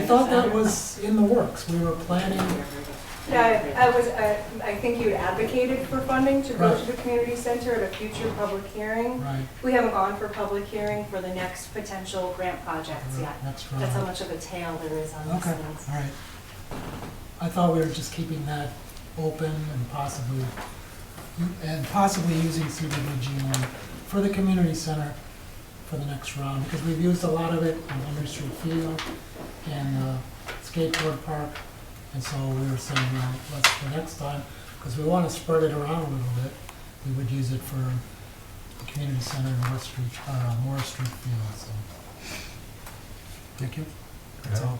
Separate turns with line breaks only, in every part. thought that was in the works. We were planning,
Yeah, I I was, I I think you had advocated for funding to go to the community center at a future public hearing.
right,
We haven't gone for public hearing for the next potential grant projects yet.
next round.
That's how much of a tail there is on these
Okay,
things.
all right. I thought we were just keeping that open and possibly, and possibly using CDBG money for the community center for the next round, because we've used a lot of it on Henry Street Field and uh, skateboard park. And so we were saying, well, let's, the next time, because we want to spread it around a little bit, we would use it for the community center and West Street, uh, Morris Street Field, so. Thank you. That's all.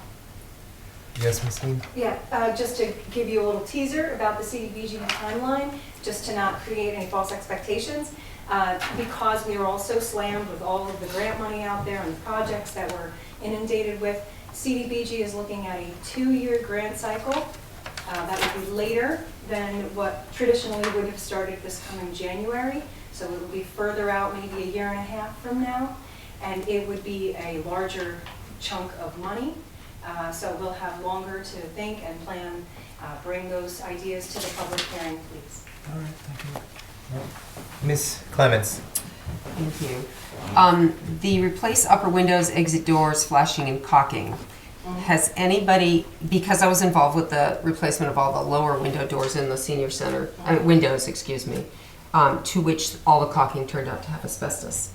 Yes, Ms. Lee?
Yeah, uh, just to give you a little teaser about the CDBG timeline, just to not create any false expectations, uh, because we are all so slammed with all of the grant money out there and the projects that we're inundated with, CDBG is looking at a two-year grant cycle. Uh, That would be later than what traditionally would have started this coming January, so it would be further out, maybe a year and a half from now, and it would be a larger chunk of money. Uh, So we'll have longer to think and plan, Uh, bring those ideas to the public hearing, please.
All right, thank you.
Ms. Clements?
Thank you. Um, the replace upper windows, exit doors, flashing and caulking. Has anybody, because I was involved with the replacement of all the lower window doors in the senior center, uh, windows, excuse me, um, to which all the caulking turned out to have asbestos.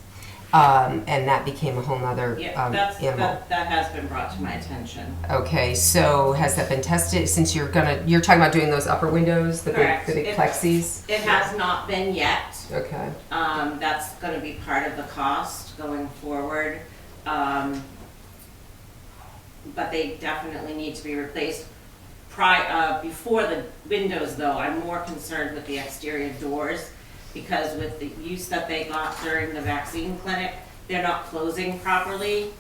Um, and that became a whole nother,
Yeah,
um,
that's,
animal.
that, that has been brought to my attention.
Okay, so has that been tested, since you're gonna, you're talking about doing those upper windows, the big,
Correct.
the big
It-
plexis?
It has not been yet.
Okay,
Um, that's gonna be part of the cost going forward. Um, but they definitely need to be replaced. Pri, uh, before the windows though, I'm more concerned with the exterior doors because with the use that they got during the vaccine clinic, they're not closing properly.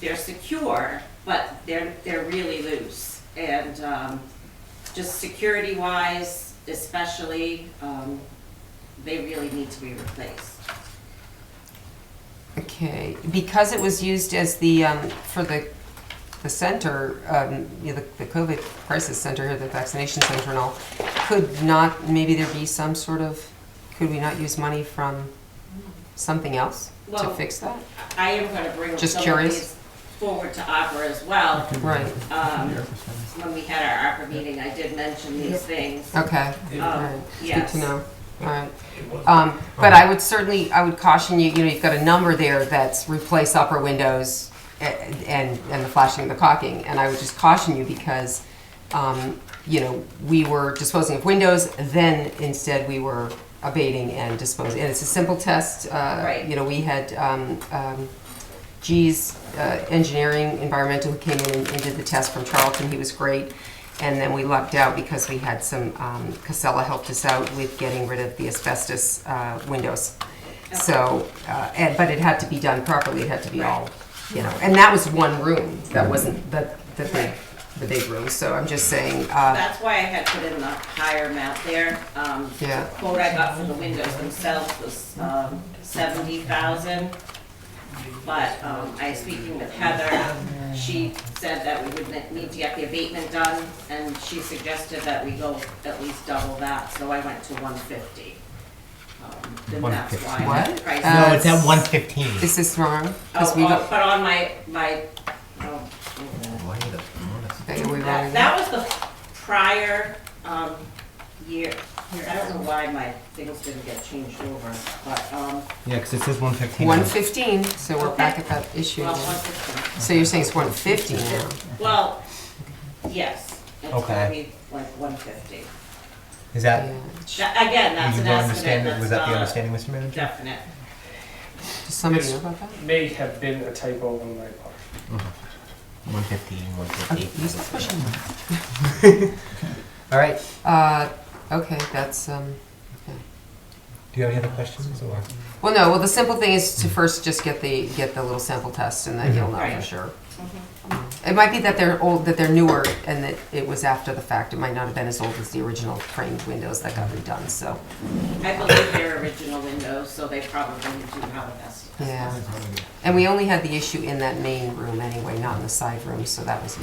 They're secure, but they're, they're really loose. And, um, just security wise especially, um, they really need to be replaced.
okay, because it was used as the, um, for the, the center, um, you know, the, the COVID crisis center, or the vaccination center and all, could not, maybe there be some sort of, could we not use money from something else to
Well-
fix that?
I am gonna bring
Just
some of
curious.
these forward to Opera as well.
Right,
Um, when we had our Opera meeting, I did mention these things.
okay, all
Um,
right, good
yes.
to know, all right. Um, but I would certainly, I would caution you, you know, you've got a number there that's replace upper windows a- and, and the flashing and the caulking. And I would just caution you because, um, you know, we were disposing of windows, then instead we were abating and disposing. And it's a simple test, uh,
Right.
you know, we had, um, um, G's uh, engineering environmental who came in and, and did the test from Charlton. He was great. And then we lucked out because we had some, um, Casella helped us out with getting rid of the asbestos uh, windows. So, uh, and, but it had to be done properly. It had to be all, you know, and that was one room. That wasn't the, the big, the big room. So I'm just saying, uh,
That's why I had put in the higher amount there. Um,
Yeah.
the quote I got for the windows themselves was, um, seventy thousand. But, um, I, speaking with Heather, she said that we would ne- need to get the abatement done, and she suggested that we go at least double that, so I went to one fifty. Then that's why.
150.
the
What?
price-
Uh,
No, it's at one fifteen.
is this wrong?
Oh,
'Cause we
oh,
got-
but on my, my, oh,
okay, we wrong
That,
again?
that was the prior, um, year, I don't know why my things didn't get changed over, but, um,
Yeah, because it says one fifteen.
115, so we're back at that issue.
well,
again.
one fifteen.
So you're saying it's 150 now?
Well, yes, it's gonna
Okay.
be like one fifty.
Is that,
Yeah.
Again, that's
you
an
don't understand,
estimate,
it?
that's
was that the
not
understanding, Mr. Manager?
definite.
Does somebody
Yes.
know about that?
may have been a typo on my part.
One fifteen, one
Okay, use this
fifty.
question.
All right, do
Uh, okay, that's, um,
you have any other questions or?
well, no, well, the simple thing is to first just get the, get the little sample test and then you'll know for
Right.
sure. It might be that they're old, that they're newer and that it was after the fact. It might not have been as old as the original framed windows that got redone, so,
I believe they're original windows, so they probably do have an estimate.
yeah. And we only had the issue in that main room anyway, not in the side room, so that was